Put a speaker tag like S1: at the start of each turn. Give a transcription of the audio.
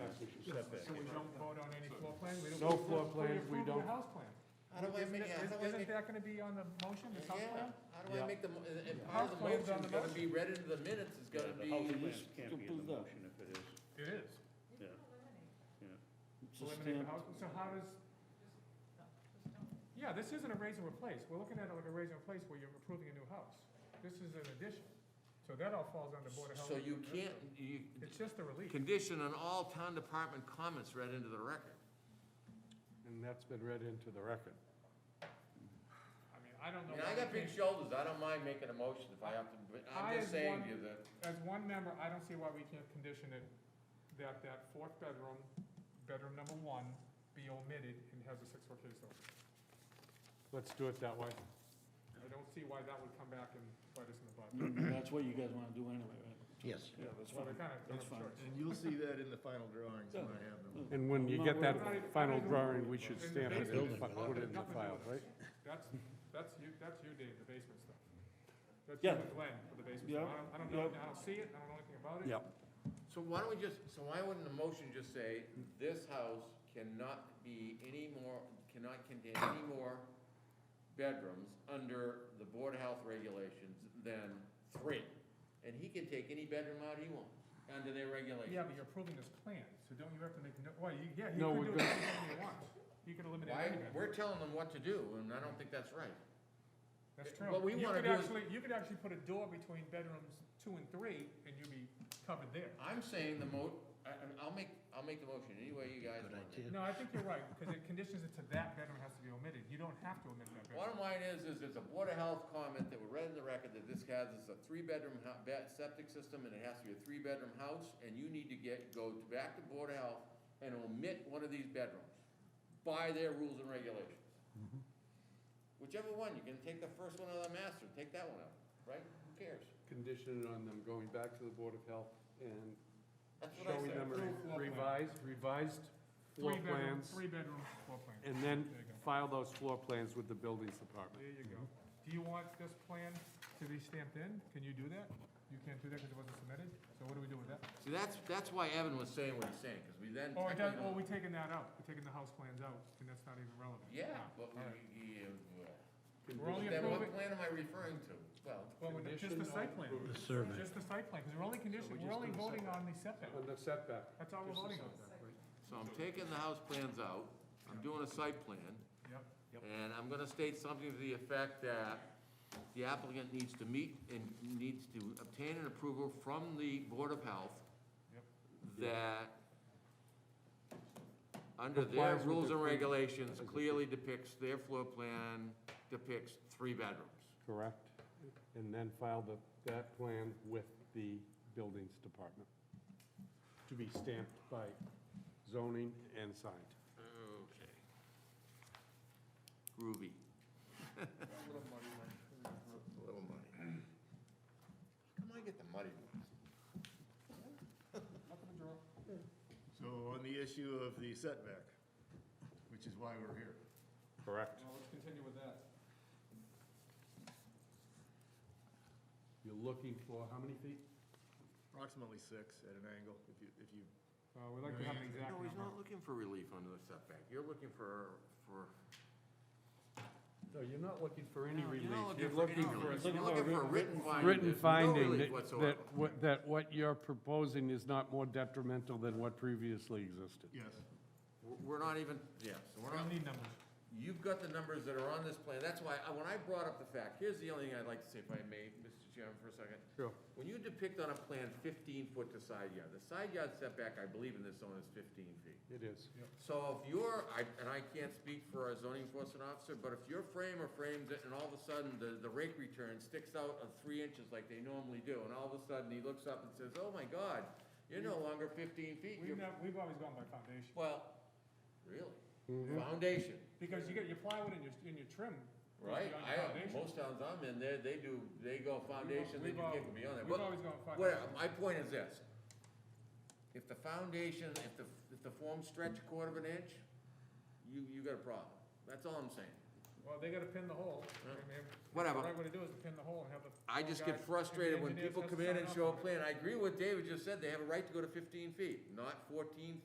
S1: don't vote on any floor plan? We don't-
S2: No floor plan,
S1: We approve
S2: we don't-
S1: your house plan.
S3: How do I
S1: Isn't
S3: make,
S1: it-
S3: yeah, how do I
S1: Isn't
S3: make,
S1: that gonna be on the motion, the house
S3: yeah,
S1: plan?
S3: how do I
S2: Yeah.
S3: make the, mo- uh, and and
S1: House
S3: part of the
S1: plan's on
S3: motion's
S1: the
S3: gotta be read into the minutes, it's gotta
S4: Yeah, The
S3: be.
S4: house
S2: Yes,
S4: plans can't be in the
S2: put that.
S4: motion if it is,
S1: It is.
S4: yeah, yeah.
S2: It's a
S1: Eliminate the
S2: stamp.
S1: house, so how does? Yeah, this isn't a raise and replace. We're looking at it like a raise and replace where you're approving a new house. This is an addition. So that all falls under Board of Health.
S3: So you can't, you,
S1: It's just a relief.
S3: condition on all town department comments read into the record.
S2: And that's been read into the record.
S1: I mean, I don't
S3: I
S1: know.
S3: mean, I got big shoulders, I don't mind making a motion if I have to, but
S1: I
S3: I'm just
S1: as
S3: saying
S1: one-
S3: to you that,
S1: As one member, I don't see why we can't condition it that that fourth bedroom, bedroom number one, be omitted and has a six-foot case door.
S2: Let's do it that way.
S1: I don't see why that would come back and bite us in the butt.
S5: That's what you guys wanna do anyway, right?
S6: Yes.
S5: Yeah, that's
S1: So they
S5: fine.
S1: kind of,
S5: That's
S1: don't have a
S5: fine.
S1: choice.
S6: And you'll see that in the final drawings when I have them.
S2: And when you get that final drawing, we should stamp it and fi- put it in the file, right?
S1: That's, that's you, that's you, Dave, the basement stuff. That's you
S2: Yeah.
S1: and Glenn for the basement.
S2: Yeah.
S1: stuff. I don't, I don't know,
S2: Yeah.
S1: I don't see it, I don't know anything about it.
S2: Yep.
S3: so why don't we just, so why wouldn't the motion just say, this house cannot be any more, cannot contain any more bedrooms under the Board of Health regulations than three? And he can take any bedroom out he wants, under their regulations.
S1: Yeah, but you're approving this plan, so don't you have to make, no- well, you, yeah, you
S2: No,
S1: could do
S2: we're good.
S1: anything you want. You could eliminate any
S3: Why,
S1: bedroom.
S3: we're telling them what to do, and I don't think that's right.
S1: That's
S3: It-
S1: true.
S3: what we
S1: You
S3: wanna
S1: could
S3: do is-
S1: actually- You could actually put a door between bedrooms two and three, and you'd be covered there.
S3: I'm saying the mo, I, I- I'll make, I'll make the motion any way you guys
S6: Good
S3: want. it.
S6: idea.
S1: No, I think you're right, because it conditions it to that bedroom has to be omitted. You don't have to omit that bedroom.
S3: Bottom line is, is it's a Board of Health comment that we read in the record that this has, is a three-bedroom hou- be- septic system, and it has to be a three-bedroom house, and you need to get, go back to Board of Health and omit one of these bedrooms by their rules and regulations. Whichever one, you can take the first one out of the master, take that one out, right? Who cares?
S2: Conditioned on them going back to the Board of Health and
S3: That's what I
S2: showing
S3: said.
S2: them a revised, revised floor
S1: Three bedroom,
S2: plans.
S1: three bedroom floor plan.
S2: And
S1: There you
S2: then
S1: go.
S2: file those floor plans with the buildings department.
S1: There you go. Do you want this plan to be stamped in? Can you do that? You can't do that because it wasn't submitted, so what do we do with that?
S3: See, that's, that's why Evan was saying what he's saying, because we then.
S1: Oh, it does,
S3: technically-
S1: oh, we're taking that out. We're taking the house plans out, and that's not even relevant.
S3: Yeah, but we,
S1: All right.
S3: yeah, well.
S1: We're only
S3: Then what
S1: approving,
S3: plan am I referring to? Well,
S1: well, we're- just the site plan,
S6: survey.
S1: just the site plan, because we're only conditioning, we're only voting on the setback.
S2: On the setback.
S1: That's all we're voting on.
S3: so I'm taking the house plans out, I'm doing a site plan,
S1: Yep.
S3: and I'm gonna state something to the effect that the applicant needs to meet and needs to obtain an approval from the Board of Health
S1: Yep.
S3: that under their
S2: Complies with
S3: rules
S2: the
S3: and
S2: plan.
S3: regulations clearly depicts, their floor plan depicts three bedrooms.
S2: Correct. And then file the, that plan with the buildings department to be stamped by zoning and signed.
S3: Okay. Groovy. A little money. How come I get the muddy ones?
S6: So on the issue of the setback, which is why we're here.
S2: Correct.
S1: Now, let's continue with that.
S2: You're looking for how many feet?
S6: Approximately six at an angle, if you, if you,
S1: Uh, we'd like to have an exact
S3: No, he's
S1: number.
S3: not looking for relief under the setback. You're looking for, for.
S2: No, you're not looking for any
S3: You're
S2: relief.
S3: not looking
S2: You're
S3: for any
S2: looking for
S3: relief.
S2: a
S3: You're looking for a written finding.
S2: written
S3: There's No
S2: finding
S3: relief
S2: that,
S3: whatsoever.
S2: that, what- that what you're proposing is not more detrimental than what previously existed.
S6: yes.
S3: We're we're not even, yeah, so we're
S1: We don't
S3: not,
S1: need numbers.
S3: you've got the numbers that are on this plan. That's why, I- when I brought up the fact, here's the only thing I'd like to say, if I may, Mr. Chairman, for a second.
S2: Sure.
S3: When you depict on a plan fifteen foot to side yard, the side yard setback, I believe in this zone is fifteen feet.
S2: It is.
S3: So if you're, I- and I can't speak for a zoning enforcement officer, but if your framer frames it and all of a sudden the, the rake return sticks out of three inches like they normally do, and all of a sudden he looks up and says, oh my God, you're no longer fifteen feet,
S1: We've,
S3: you're,
S1: nev- we've always gone by foundation,
S3: well, really? Foundation,
S1: because you get your plywood and your, and your trim. goes
S3: right?
S1: beyond
S3: I,
S1: foundation.
S3: most towns I'm in, they, they do, they go foundation, then
S1: We've
S3: you
S1: al-
S3: kick beyond that.
S1: we've
S3: But
S1: always gone foundation.
S3: Whatever, my point is this. If the foundation, if the, if the form stretch a quarter of an inch, you, you got a problem. That's all I'm saying.
S1: Well, they gotta pin the hole. I mean,
S3: uh, Whatever.
S1: The right way to do is to pin the hole and have the.
S3: I just
S1: guys-
S3: get
S1: and the
S3: frustrated when
S1: engineers
S3: people
S1: has
S3: come
S1: to
S3: in
S1: sign
S3: and
S1: off
S3: show a
S1: on it.
S3: plan. I agree with David just said, they have a right to go to fifteen feet, not fourteen